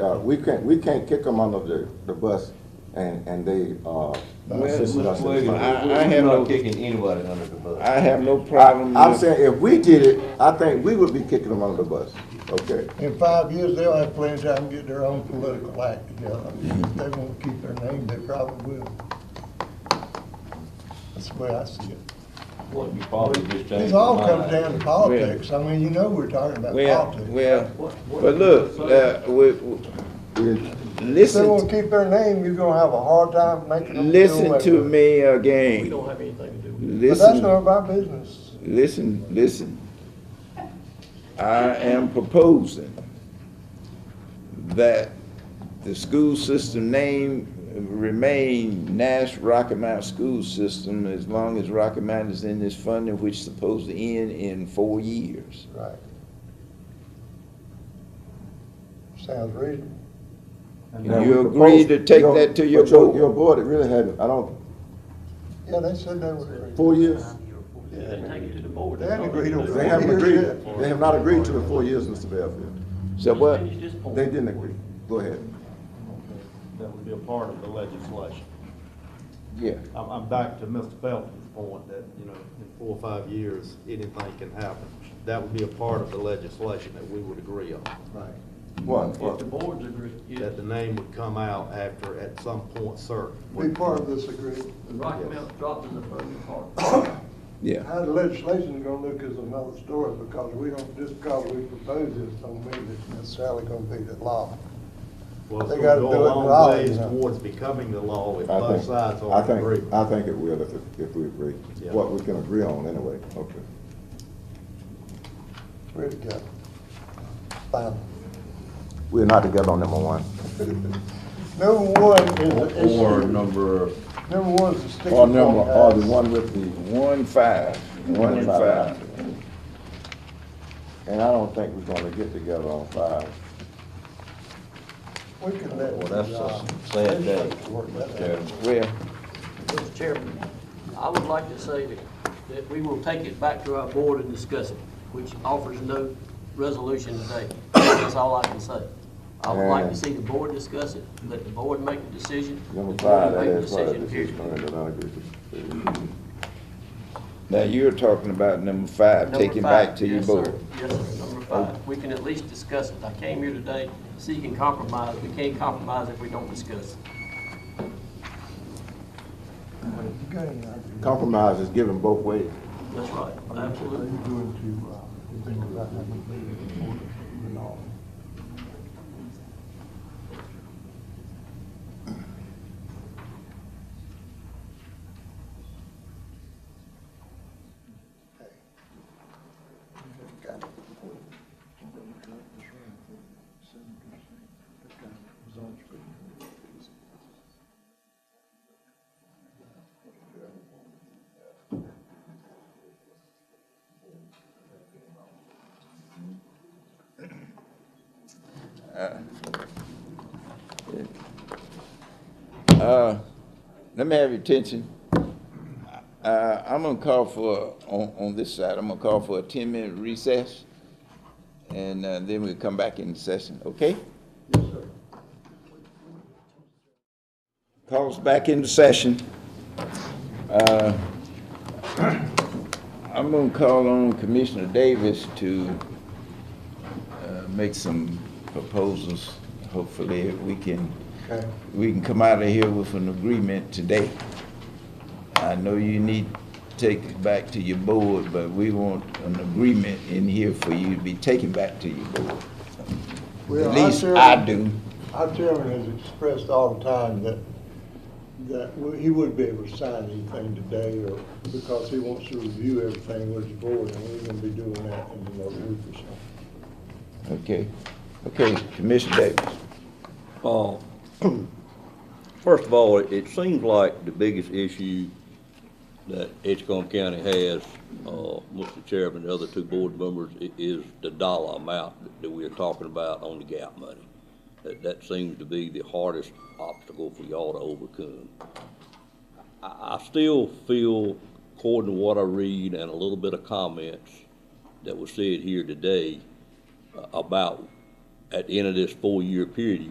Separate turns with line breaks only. uh, we can't, we can't kick them under the, the bus and, and they, uh, assisted us. in
Well,
finding-
I- I have
We're
no-
not kicking anybody under the bus.
I have no problem
I- I'm
with,
saying, if we did it, I think we would be kicking them under the bus, okay?
In five years, they'll have plenty of time to get their own political act together. If
Mm-hmm.
they won't keep their name, they probably will. That's the way I see it.
What, you probably just changed
This all
your
comes
mind.
down to politics. I mean, you know we're talking about
well,
politics.
well, but look, uh, we, we-
If they
listen,
won't keep their name, you're gonna have a hard time making them do
listen
away
to
with it.
me again.
We don't have anything to do with it.
But that's
Listen,
none of our business.
listen, listen. I am proposing that the school system name remain Nash Rocky Mountain School System as long as Rocky Mountain is in this funding, which is supposed to end in four years.
Right. Sounds reasonable.
Now,
You
we
agreed
proposed-
to take
your-
that to your
but your-
board.
Your board, it really hadn't, I don't,
Yeah, they said they would agree.
four years?
They take it to the board.
They hadn't agreed on
They haven't agreed, they have not agreed to the four years, Mr. Bellfield.
So what?
They didn't agree. Go ahead.
that would be a part of the legislation.
Yeah.
I'm, I'm back to Mr. Felton's point that, you know, in four or five years, anything can happen. That would be a part of the legislation that we would agree on,
Right.
One,
If the boards agree, if
that the name would come out after, at some point, sir.
Be part of this agreement.
the Rocky Mountain dropped in the funding part.
Yeah.
How the legislation's gonna look is another story, because we don't, just because we propose this, don't mean it's necessarily gonna be the law.
Well, it's
They
gonna
gotta
go
do it
a
now,
long ways
you know.
towards becoming the law if
I
both
think,
sides
I
are in
think,
agreement.
I think it will if, if we agree.
Yeah.
What we can agree on anyway, okay.
We're together. Final.
We're not together on number one.
Number one is the issue.
Or number,
Number one is the sticking
Or
point.
number, or the one with the,
One five. One five.
and I don't think we're gonna get together on five.
We can let.
well, that's
uh,
a sad day,
legislature work that out.
Mr. Chairman.
Well,
Mr. Chairman, I would like to say that, that we will take it back to our board and discuss it, which offers no resolution today. That's all I can say. I would like to see the board discuss it, let the board make the decision.
Number
the
five,
board
that
make the
is part
decision,
of this is
period.
going to not agree with.
now you're talking about number five,
Number
take it back
five,
to your
yes, sir.
board.
Yes, sir, number five. We can at least discuss it. I came here today seeking compromise. We can't compromise if we don't discuss.
Go ahead, Andrew.
Compromise is given both ways.
That's right, absolutely.
What are you doing to, uh, you think about having a meeting before the- the law?
Uh, let me have your attention. Uh, I'm gonna call for, on, on this side, I'm gonna call for a ten-minute recess, and, uh, then we'll come back in session, okay? Calls back into session. Uh, I'm gonna call on Commissioner Davis to, uh, make some proposals. Hopefully, we can,
Okay.
we can come out of here with an agreement today. I know you need to take it back to your board, but we want an agreement in here for you to be taken back to your board.
Well,
At
I
least
share-
I do.
Our chairman has expressed all the time that, that he wouldn't be able to sign anything today or because he wants to review everything with the board and we're gonna be doing that in another week or so.
Okay, okay, Commissioner Davis.
Uh, First of all, it- it seems like the biggest issue that Edgecombe County has, uh, Mr. Chairman, the other two board members, i- is the dollar amount that- that we're talking about on the gap money. That, that seems to be the hardest obstacle for y'all to overcome. I, I still feel, according to what I read and a little bit of comments that were said here today uh, about, at the end of this four-year period,